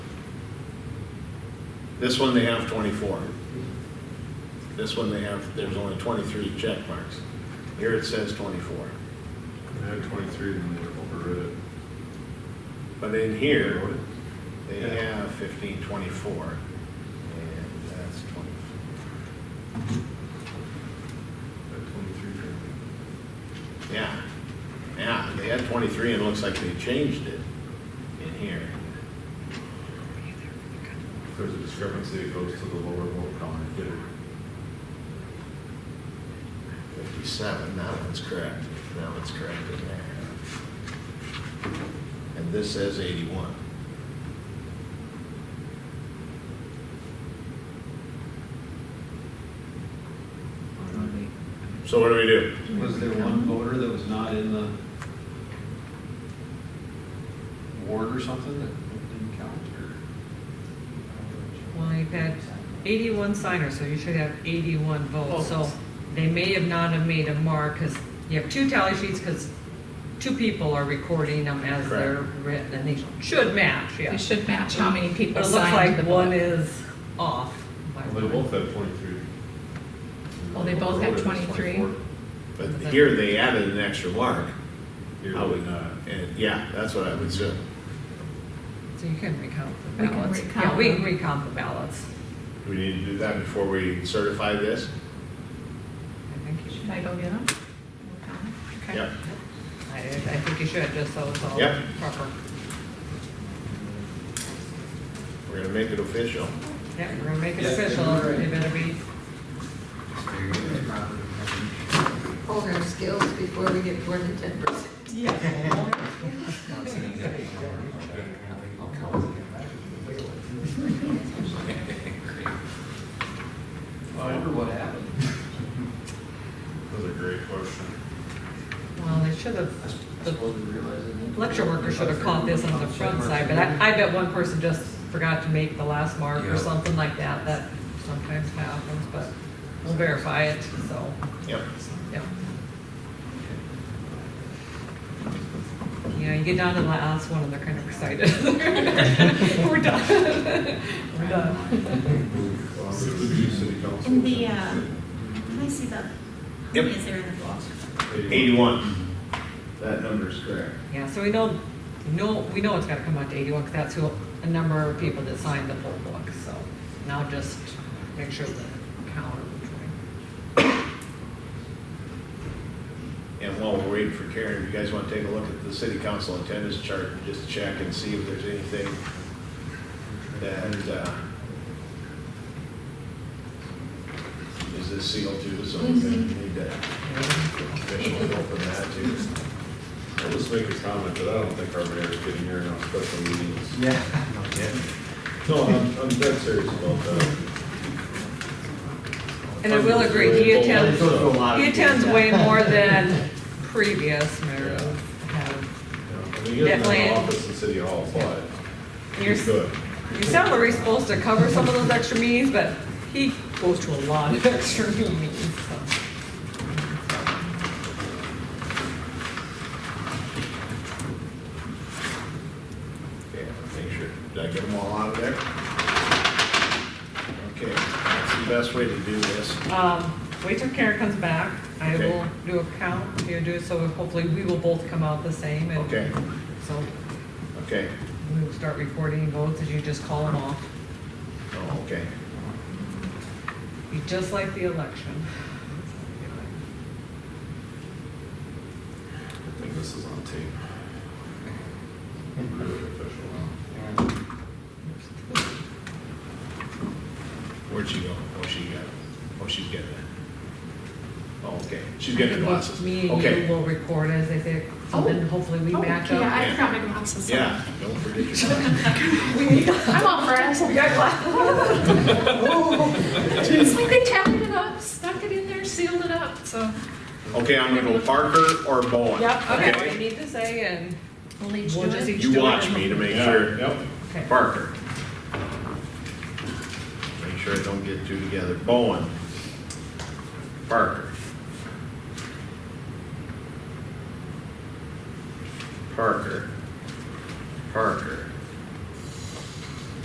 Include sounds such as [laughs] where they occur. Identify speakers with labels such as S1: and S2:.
S1: This one, they have twenty-four. This one, they have, there's only twenty-three check marks. Here it says twenty-four.
S2: They had twenty-three and they overrid it.
S1: But in here,
S2: Wrote it.
S1: They
S2: Yeah.
S1: have fifteen twenty-four, and that's twenty,
S2: Had twenty-three.
S1: yeah, yeah, they had twenty-three, and it looks like they changed it in here.
S2: If there's a discrepancy, it goes to the lower vote count and get it.
S1: Fifty-seven, that one's correct, that one's correct in there. And this says eighty-one. So what do we do?
S3: Was there one voter that was not in the ward or something that didn't count, or?
S4: Well, you've had 81 signers, so you should have 81 votes. So they may have not have made a mark, because you have two tally sheets, because two people are recording them as they're written, and they should match, yeah.
S5: It should match how many
S4: But
S5: people
S4: it looks
S5: signed
S4: like
S5: the
S4: one
S5: book.
S4: is off. by
S2: Well, they
S4: one.
S2: both had twenty-three.
S5: Well, they both had 23.
S1: But here they added an extra mark,
S2: Here,
S1: I would
S2: not.
S1: and yeah, that's what I would say.
S4: So you can recount the
S5: We can
S4: ballots. Yeah,
S5: recount
S4: we can
S5: them.
S4: recount the ballots.
S1: Do we need to do that before we certify this?
S4: I think you
S5: Should
S4: should.
S5: I go get them? Okay.
S1: Yep.
S4: I, I think you should, just so it's all
S1: Yep.
S4: proper.
S1: We're gonna make it official.
S4: Yeah, we're gonna make it
S3: Yeah,
S4: official,
S3: you're right.
S4: it better be.
S6: hold our skills before we get more than ten percent.
S3: I wonder what happened.
S2: That's a great question.
S4: Well, they should have, the lecture worker should have caught this on the front side, but I, I bet one person just forgot to make the last mark or
S7: Yeah.
S4: something like that, that sometimes happens, but we'll verify it, so,
S1: Yep.
S4: yeah. You know, you get down to the last one and they're kind of excited. [laughs] We're done. We're done.
S2: Well, it would be city council.
S8: In the, uh, can I see the, how many is there in the book?
S1: Eighty-one. That number's correct.
S4: Yeah, so we know, we know, we know it's gotta come out to eighty-one, because that's who, a number of people that signed the poll book, so now just make sure the count.
S1: And while we're waiting for Karen, you guys wanna take a look at the city council attendance chart, and just check and see if there's anything that, uh, is this sealed too, so we need to officially open that too.
S2: I'll just make a comment that I don't think our mayor's getting here in our special meetings.
S7: Yeah.
S2: No, I'm, I'm dead serious about that.
S4: And I will agree, he attends, he attends way more than previous mayors have.
S2: Yeah, I mean, he doesn't
S4: Definitely.
S2: have an office in City Hall, but
S4: Your,
S2: he could.
S4: your salary's supposed to cover some of those extra meetings, but he goes to a lot of [laughs] extra meetings, so.
S1: Yeah, make sure, did I get them all out of there? Okay, that's the best way to do this.
S4: Um, wait till Karen comes back. I
S1: Okay.
S4: will do a count, you do, so hopefully we will both come out the same. and-
S1: Okay.
S4: So
S1: Okay,
S4: we will start recording votes, and you just call them off.
S1: oh, okay.
S4: Be just like the election.
S2: I think this is on tape. Really official now.
S1: Where'd she go? Oh, she got, oh, she's getting it. Oh, okay, she's getting her glasses.
S4: Me and you
S1: Okay,
S4: will record as they say, and then hopefully we
S5: Oh,
S4: match
S5: Yeah,
S4: up.
S5: I forgot my glasses.
S1: yeah, don't forget your glasses.
S5: I'm all for it.
S4: [laughs] We got glasses.
S5: It's like they tapped it up, stuck it in there, sealed it up, so.
S1: Okay, I'm gonna go Parker or Bowen.
S4: Okay, what I need to say, and
S5: We'll each
S4: we'll just each do it.
S1: You watch me to make sure.
S2: Yep.
S4: Okay.
S1: Parker. Make sure I don't get two together. Bowen. Parker. Parker.